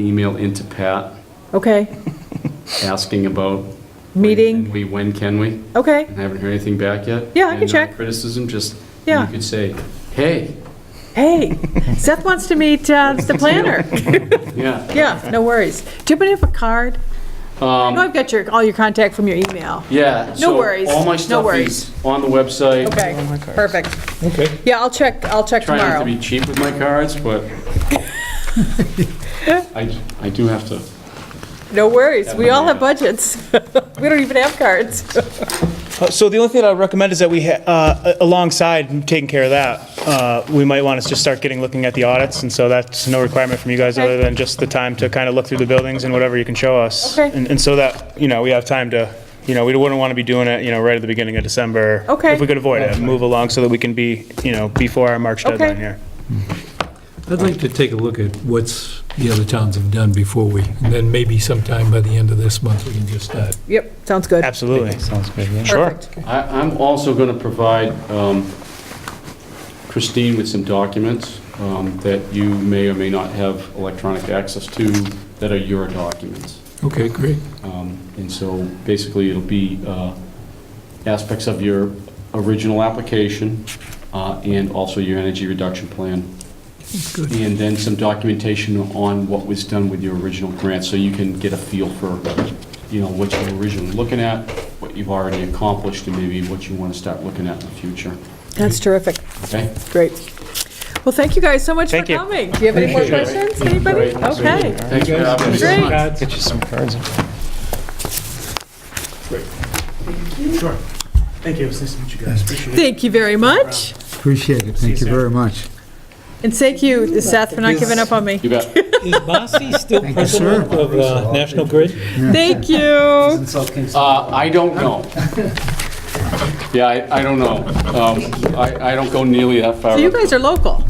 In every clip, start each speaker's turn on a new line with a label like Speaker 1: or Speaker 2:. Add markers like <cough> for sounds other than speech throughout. Speaker 1: email into Pat
Speaker 2: Okay,
Speaker 1: asking about. when
Speaker 2: Meeting.
Speaker 1: can We, when can we?
Speaker 2: okay,
Speaker 1: And I haven't heard anything back yet.
Speaker 2: Yeah, I can
Speaker 1: And, uh,
Speaker 2: check.
Speaker 1: Criticism, just, you
Speaker 2: Yeah.
Speaker 1: could say, hey,
Speaker 2: hey, Seth wants to meet uh, the planner.
Speaker 1: yeah.
Speaker 2: Yeah, no worries. Do you happen to have a card? I know
Speaker 1: Um,
Speaker 2: I've got your, all your contact from your email.
Speaker 1: Yeah. so
Speaker 2: worries,
Speaker 1: All my
Speaker 2: no
Speaker 1: stuff
Speaker 2: worries.
Speaker 1: is on the website.
Speaker 2: Okay, perfect.
Speaker 3: Okay.
Speaker 2: Yeah, I'll check, I'll check
Speaker 1: Try not to
Speaker 2: tomorrow.
Speaker 1: be cheap with my cards,
Speaker 2: <laughs>
Speaker 1: but I, I do have to.
Speaker 2: No worries, we all have budgets. <laughs> We don't even have cards.
Speaker 3: So the only thing I would recommend is that we, ha- uh, alongside taking care of that, uh, we might want to just start getting, looking at the audits, and so that's no requirement from you guys, other than just the time to kind of look through the buildings and whatever you can show us.
Speaker 2: Okay.
Speaker 3: And and so that, you know, we have time to, you know, we wouldn't want to be doing it, you know, right at the beginning of December.
Speaker 2: Okay.
Speaker 3: If we could avoid it, move along so that we can be, you know, before our March
Speaker 2: Okay.
Speaker 3: deadline here.
Speaker 4: I'd like to take a look at what's the other towns have done before we, and then maybe sometime by the end of this month, we can just start.
Speaker 2: Yep, sounds good.
Speaker 3: Absolutely. Sounds good, yeah. Sure.
Speaker 2: Perfect.
Speaker 1: I, I'm also going to provide um, Christine with some documents um, that you may or may not have electronic access to that are your documents.
Speaker 4: Okay, great.
Speaker 1: Um, And so basically, it'll be uh, aspects of your original application uh, and also your energy reduction plan.
Speaker 4: Good.
Speaker 1: And then some documentation on what was done with your original grant, so you can get a feel for, you know, what you were originally looking at, what you've already accomplished, and maybe what you want to start looking at in the future,
Speaker 2: That's terrific,
Speaker 1: okay?
Speaker 2: great. Well, thank you guys so much for
Speaker 3: Thank you.
Speaker 2: coming. Do you have any more questions, anybody? Okay,
Speaker 1: Thanks for having us.
Speaker 2: great.
Speaker 3: Get you some cards. Sure. Thank you, it was nice to meet you guys, appreciate it.
Speaker 2: Thank you very much.
Speaker 5: Appreciate it, thank you very much.
Speaker 2: And thank you, Seth, for not giving up on me.
Speaker 1: You bet.
Speaker 6: Is Marcy still
Speaker 5: Thank you, sir.
Speaker 6: president of uh, National Grid?
Speaker 2: Thank you.
Speaker 1: Uh, I don't know. Yeah, I, I don't know. Um, I, I don't go nearly that far.
Speaker 2: So you guys are local.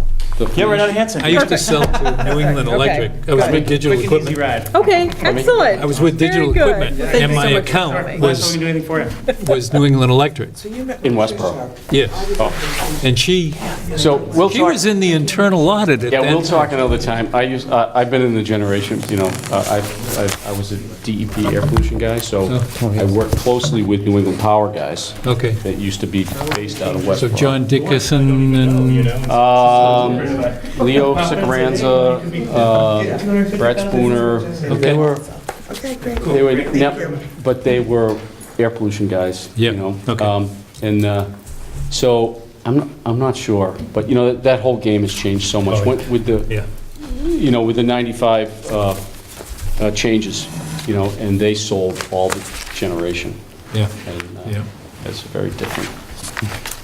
Speaker 3: Yeah, right out of Hanson.
Speaker 4: I used to sell to New England Electric. I was with digital
Speaker 3: Quick and easy
Speaker 4: equipment.
Speaker 3: ride.
Speaker 2: Okay, excellent.
Speaker 4: I was with digital
Speaker 2: Very good.
Speaker 4: equipment,
Speaker 2: Thank you
Speaker 4: and
Speaker 2: so
Speaker 4: my
Speaker 2: much for
Speaker 4: account
Speaker 2: coming.
Speaker 3: Last time we
Speaker 4: was,
Speaker 3: can do anything for you.
Speaker 4: was New England Electric,
Speaker 1: In Westboro. Oh.
Speaker 4: yes. And she,
Speaker 1: So we'll
Speaker 4: she
Speaker 1: talk,
Speaker 4: was in the internal audit at
Speaker 1: yeah, we'll
Speaker 4: that
Speaker 1: talk another time. I use, uh, I've been in the generation, you know, uh, I, I- I was a DEP air pollution guy, so
Speaker 4: Oh,
Speaker 1: I worked closely with New England Power guys
Speaker 4: Okay,
Speaker 1: that used to be based out of
Speaker 4: so
Speaker 1: Westboro.
Speaker 4: John Dickerson and,
Speaker 1: Um, Leo Sacranza, uh, Brett Spooner, they
Speaker 4: Okay.
Speaker 1: were, they were, nep- but they were air pollution guys, you
Speaker 4: Yeah,
Speaker 1: know?
Speaker 4: okay.
Speaker 1: Um, And uh, so, I'm, I'm not sure, but you know, that- that whole game has changed so much
Speaker 4: Oh,
Speaker 1: with with the,
Speaker 4: yeah,
Speaker 1: you know, with the 95 uh, uh, changes, you know, and they sold all the generation.
Speaker 4: yeah,
Speaker 1: and uh,
Speaker 4: yeah.
Speaker 1: It's very different.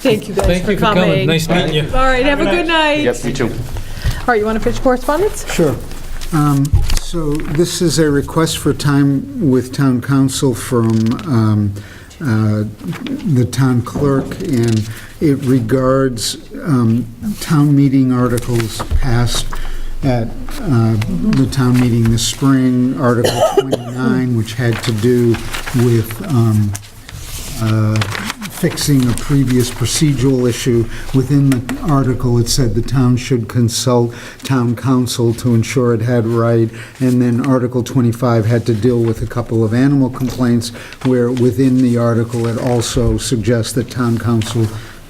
Speaker 2: Thank you guys
Speaker 4: Thank
Speaker 2: for
Speaker 4: you for coming,
Speaker 2: coming.
Speaker 4: nice meeting you.
Speaker 2: All right, have a good night.
Speaker 1: Yep, me too.
Speaker 2: All right, you want to finish correspondence?
Speaker 5: Sure. Um, So this is a request for time with town council from um, uh, the town clerk, and it regards um, town meeting articles passed at uh, the town meeting this spring, Article 29, which had to do with um, uh, fixing a previous procedural issue. Within the article, it said the town should consult town council to ensure it had right, and then Article 25 had to deal with a couple of animal complaints, where within the article, it also suggests that town council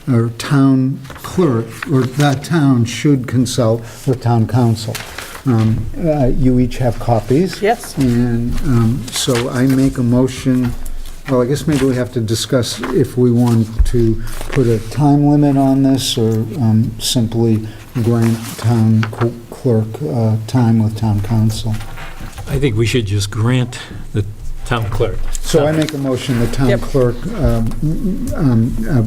Speaker 5: or town clerk, or that town should consult with town council. Um, uh, You each have copies.
Speaker 2: Yes.
Speaker 5: And um, so I make a motion, well, I guess maybe we have to discuss if we want to put a time limit on this or um, simply grant town cl- clerk uh, time with town council.
Speaker 4: I think we should just grant the town clerk.
Speaker 5: So I make a motion that town
Speaker 2: Yep.
Speaker 5: clerk um, um, uh,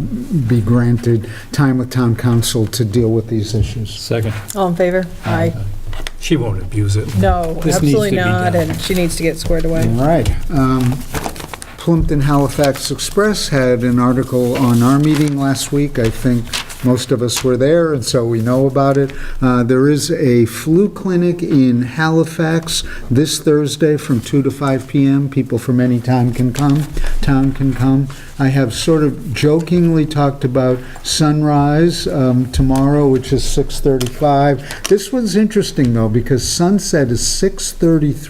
Speaker 5: be granted time with town council to deal with these issues.
Speaker 4: Second.
Speaker 2: All in favor? Aye.
Speaker 4: She won't abuse it.
Speaker 2: No,
Speaker 4: Uh, This needs
Speaker 2: absolutely
Speaker 4: to be
Speaker 2: not,
Speaker 4: done.
Speaker 2: and she needs to get squared
Speaker 5: All
Speaker 2: away.
Speaker 5: right. Um, Plimpton Halifax Express had an article on our meeting last week. I think most of us were there, and so we know about it. Uh, There is a flu clinic in Halifax this Thursday from 2 to 5 p.m. People from any time can come, town can come. I have sort of jokingly talked about sunrise um, tomorrow, which is 6:35. This one's interesting, though, because sunset is 6:33.